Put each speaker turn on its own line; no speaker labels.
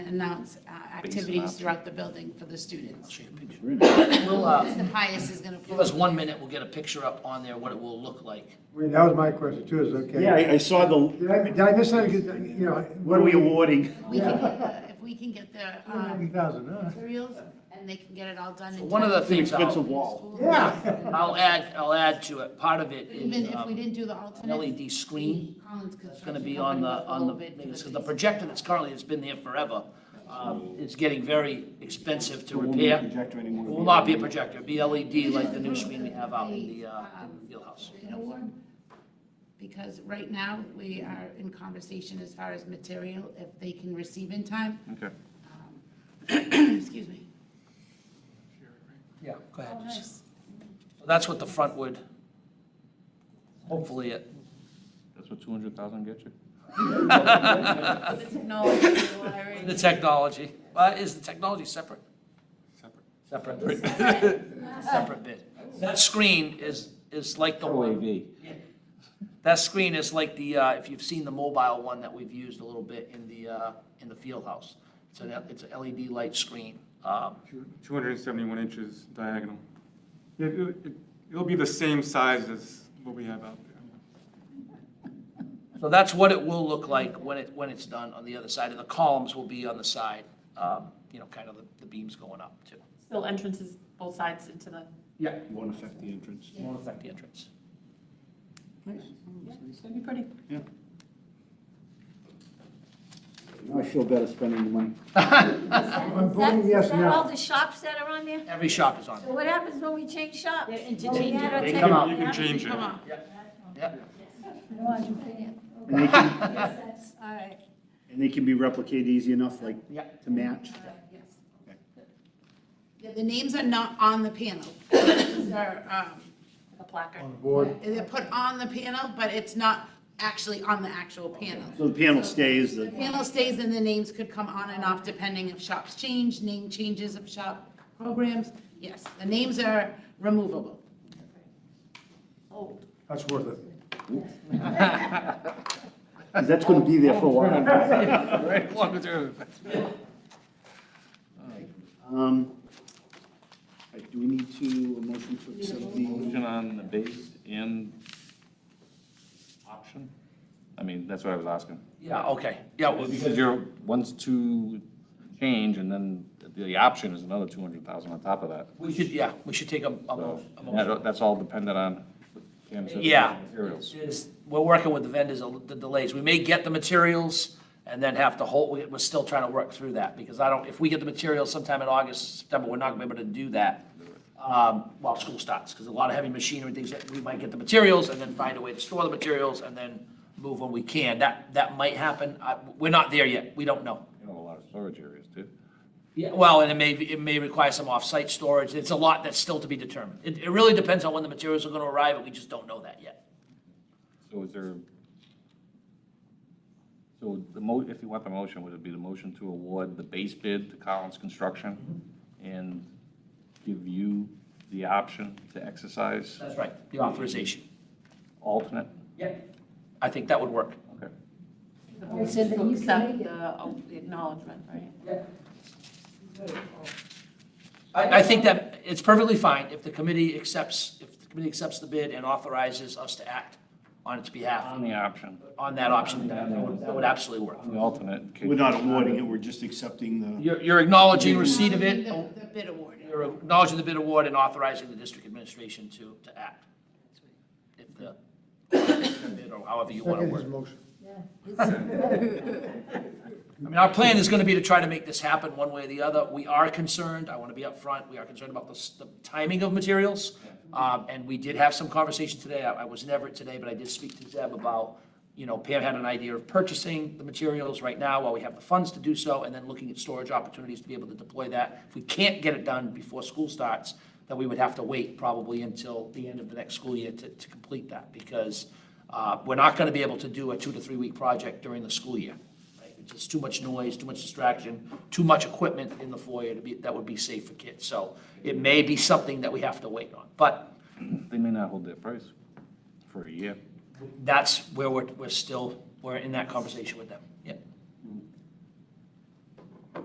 announce uh, activities throughout the building for the students.
We'll, uh,
The highest is going to.
give us one minute, we'll get a picture up on there, what it will look like.
Wait, that was my question too, is okay.
Yeah, I, I saw the,
Did I, did I miss anything, you know?
what are we awarding?
We can, uh, If we can get their
Ninety
um,
thousand, huh?
materials and they can get it all done in time.
One of the
for
things
Expensive
I'll,
wall.
school.
Yeah.
I'll add, I'll add to it, part of it
Even
is
if we
um,
didn't do the
an
alternate.
LED screen.
Collins
It's
Construction
gonna be on the, on the,
Company was a
because
little
the
bit for
projector that's currently, has been there forever, um, is getting very expensive to repair.
Projector anymore.
It Will not be a projector, it'll be LED like the new screen we have out in the, uh, in the field house.
an award, Because right now, we are in conversation as far as material, if they can receive in time. Um,
Okay.
Excuse me.
Yeah, go ahead. So That's what the front would, hopefully it,
That's what two hundred thousand gets you?
the technology. Uh, is the technology separate? Separate. Separate. Separate bid. That screen is, is like the one. That screen is like the, uh, if you've seen the mobile one that we've used a little bit in the, uh, in the field house. It's an, it's a LED light screen. Um,
271 inches diagonal. It- it- it- It'll be the same size as what we have out there.
So that's what it will look like when it, when it's done on the other side. And the columns will be on the side, um, you know, kind of the, the beams going up too.
Still entrances both sides into the
Yeah.
Won't affect the entrance.
Won't affect the entrance.
It's gonna be pretty.
I feel better spending the money.
I'm voting yes
Is that all
now.
the shops that are on there?
Every shop is on.
So what happens when we change shops?
They're
When we add our
They
tech-
come out.
You can change it.
Yeah.
No, I don't think it.
And they can,
Yes, that's- All right.
and they can be replicated easy enough, like,
Yeah.
to match?
Yeah, The names are not on the panel. These are, um,
the placard.
On the board.
They're put on the panel, but it's not actually on the actual panel.
So the panel stays,
The
the,
panel stays and the names could come on and off depending if shops change, name changes of shop programs. Yes, the names are removable.
That's worth it.
that's gonna be there for a while.
uh,
Um, all right, do we need to, a motion to accept the,
Motion on the base and option? I mean, that's what I was asking.
Yeah, okay. Yeah, well,
Because you're, one's two change, and then the option is another two hundred thousand on top of that.
we should, yeah, we should take a, a
So
mo- a motion.
that- that's all dependent on Pam's
Yeah.
materials.
is, we're working with the vendors, the delays. We may get the materials and then have to hold, we- we're still trying to work through that, because I don't, if we get the materials sometime in August, September, we're not gonna be able to do that um, while school starts, because a lot of heavy machinery, and things, that we might get the materials and then find a way to store the materials and then move when we can. That, that might happen. I- We're not there yet. We don't know.
You know, a lot of storage areas too.
Yeah, well, and it may, it may require some off-site storage. It's a lot that's still to be determined. It, it really depends on when the materials are gonna arrive, and we just don't know that yet.
So is there, so the mo, if you want the motion, would it be the motion to award the base bid to Collins Construction and give you the option to exercise
That's right, the authorization.
alternate?
Yeah, I think that would work.
Okay.
They said that
To
you
accept
can make it.
the oh, the acknowledgement, right?
I, I think that it's perfectly fine if the committee accepts, if the committee accepts the bid and authorizes us to act on its behalf
On the option,
on that option, that would, that would absolutely work.
on the alternate. in case-
we're not awarding it, we're just accepting the,
You're, you're acknowledging receipt of it,
The the bid award.
you're acknowledging the bid award and authorizing the district administration to, to act. If the, bid or however you want to
Second
word
his
it.
motion.
I mean, our plan is going to be to try to make this happen one way or the other. We are concerned, I want to be upfront, we are concerned about the, s- the timing of materials. Um, and we did have some conversation today. I, I was in Everett today, but I did speak to Zeb about, you know, Pam had an idea of purchasing the materials right now while we have the funds to do so, and then looking at storage opportunities to be able to deploy that. If we can't get it done before school starts, then we would have to wait probably until the end of the next school year to, to complete that, because, uh, we're not going to be able to do a two to three week project during the school year. Right, It's just too much noise, too much distraction, too much equipment in the foyer to be, that would be safe for kids. So it may be something that we have to wait on, but
They may not hold their price for a year.
that's where we're, we're still, we're in that conversation with them.